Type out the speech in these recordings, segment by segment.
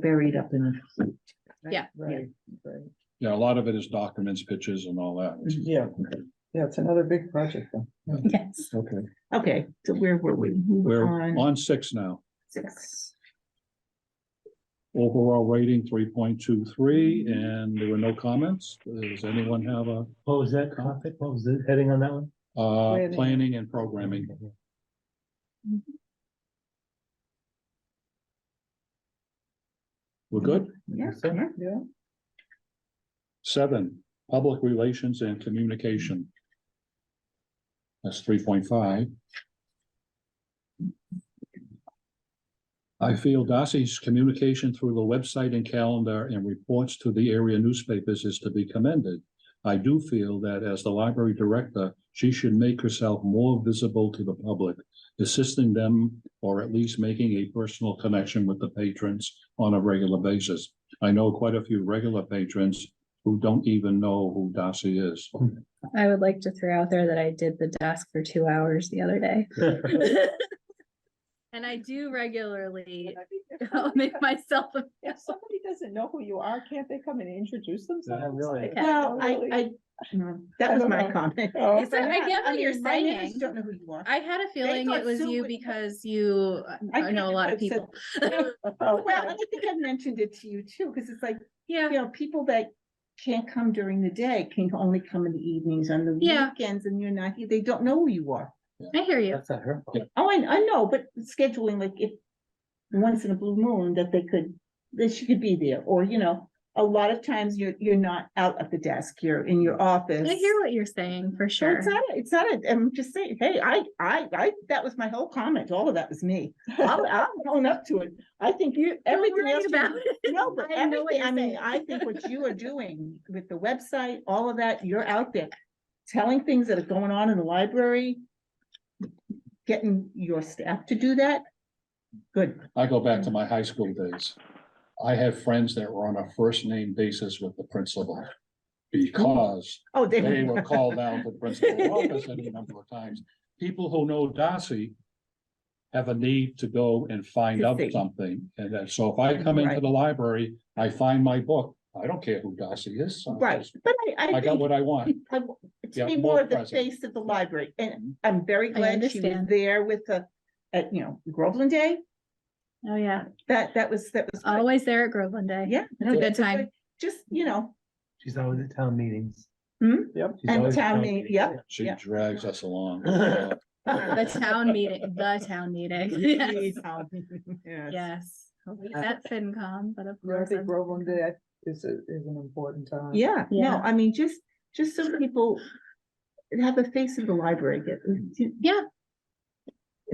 buried up in. Yeah. Right, right. Yeah, a lot of it is documents, pictures and all that. which is- Yeah, yeah, it's another big project though. Yes. Okay, Okay, so where were we? We were we're on on six now. Six. Overall rating three point two three and there were no comments. Does anyone have a What was that topic? What was the heading on that one? uh Planning. planning and programming? We're good? Yeah, Seven. yeah. Yeah, Seven, public relations and communication. That's three point five. I feel Darcy's communication through the website and calendar and reports to the area newspapers is to be commended. I do feel that as the library director, she should make herself more visible to the public, assisting them or at least making a personal connection with the patrons on a regular basis. I know quite a few regular patrons who don't even know who Darcy is. I would like to throw out there that I did the desk for two hours the other day. And I do regularly I think if I'll somebody make co- myself a If somebody doesn't know who you are, can't they come and introduce themselves? really. Like, Well, I, really? I, no, that I was don't my know. comment. Oh, It's like, I get what you're my neighbors saying. Don't know who you are. I had a feeling thought it was Sue you would- because you, uh, I I know a lot of could've people. Oh, Well, Oh, okay. I think I mentioned it to you too, because it's like, you Yeah, know, people that can't come during the day can only come in the evenings on the Yeah. weekends and you're not, here. they don't know who you are. I hear you. That's not her. fault. Oh, I, I know, but scheduling like if once in a blue moon that they could, that she could be there, or you know, a lot of times you're, you're not out at the desk, you're in your office. I hear what you're saying for So sure. It's not, a- it's not, a- I'm just saying, hey, I, I, I, that was my whole comment, all of that was me. I'm, I'm going up to it. I think you, Don't everything worry else. you about do- it. No, but I know what everything, I you're mean, saying. I think what you are doing with the website, all of that, you're out there telling things that are going on in the library. Getting your staff to do that. Good. I go back to my high school days. I have friends that were on a first name basis with the principal. Because Oh, they. they were called down to the principal's office any number of times. People who know Darcy. Have a need to go and find To out see. something. And then, so if I come into Right. the library, I find my book. I don't care who Darcy is. so Right, but I, I I got think what I want. I w- to Yeah, be more more of the present. face of the library, and I'm very Mm-hmm. I glad she was understand. there with the, at, you know, Groveland Day, Oh, yeah. that, that was, that was. great. Always there at Groveland Day. Yeah. It's a Oh, good time. Just, you know, She's always at town meetings. Hmm? Yep. she's And always at town meet- meetings. yep. She Yeah. drags us along. uh-huh. The town meeting, the town meeting. Yes. Yeah. Yes. At FinCom, but of Yeah, I course. think I'm- Groveland Day is, a- is an important time. Yeah, no, Um, Yeah. I mean, just, just so people have the face of the library, get, Yeah,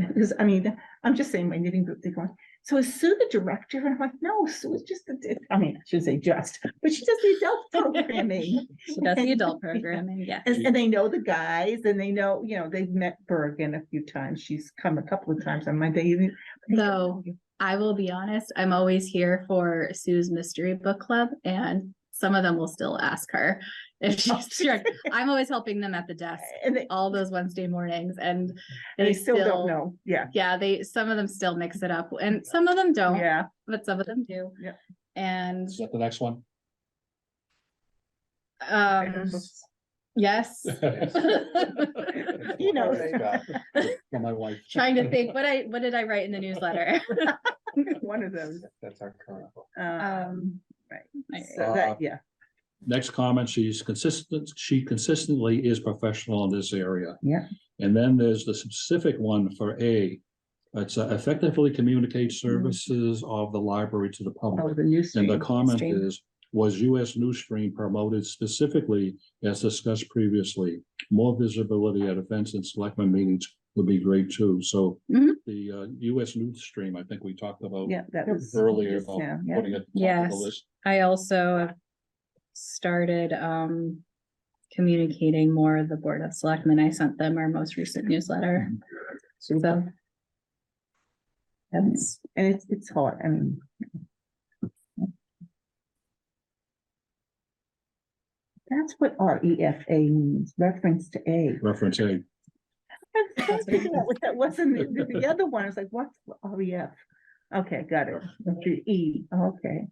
because I mean, I'm just saying my knitting group, they're going, so is Sue the director? And I'm like, no, Sue is just, the di-" I mean, I should say just, but she does the adult programming. she does the adult programming. Yeah. And, and they know the guys and they know, you know, they've met Bergen a few times. She's come a couple of times on my day. even- Though, I will be honest, I'm always here for Sue's mystery book club and some of them will still ask her if Oh, she's sure. I'm always helping them at the desk And they, all those Wednesday mornings and they still don't know. Yeah, Yeah, they, some of them still mix it up and some of them don't, yeah. but some of them do. Yeah. And, Is that the next one? um, yes. You know. For my wife. Trying to think, what I, what did I write in the newsletter? One of those. That's our current. Um, Um, Right. I- so that, yeah. Next comment, she's consistent, she consistently is professional in this area. Yeah. And then there's the specific one for A. It's uh, effectively communicate Mm-hmm. services of the library to the Oh, public. the new And the stream. comment Stream. is, was US Newsstream promoted specifically as discussed previously? More visibility at events and selectmen meetings would be great too. So Mhm. the uh, US Newsstream, I think we talked about Yeah, that was. earlier about Yeah, yeah. putting it. on the Yes. list. I also started um communicating more with the Board of Selectmen. I sent them our most recent newsletter, so. That's, And it's, it's hard. I mean. That's what R E F A means, reference to A. Reference A. I was trying to figure out what That wasn't the, the other one. I was like, what's R E F? Okay, got it. The E, okay.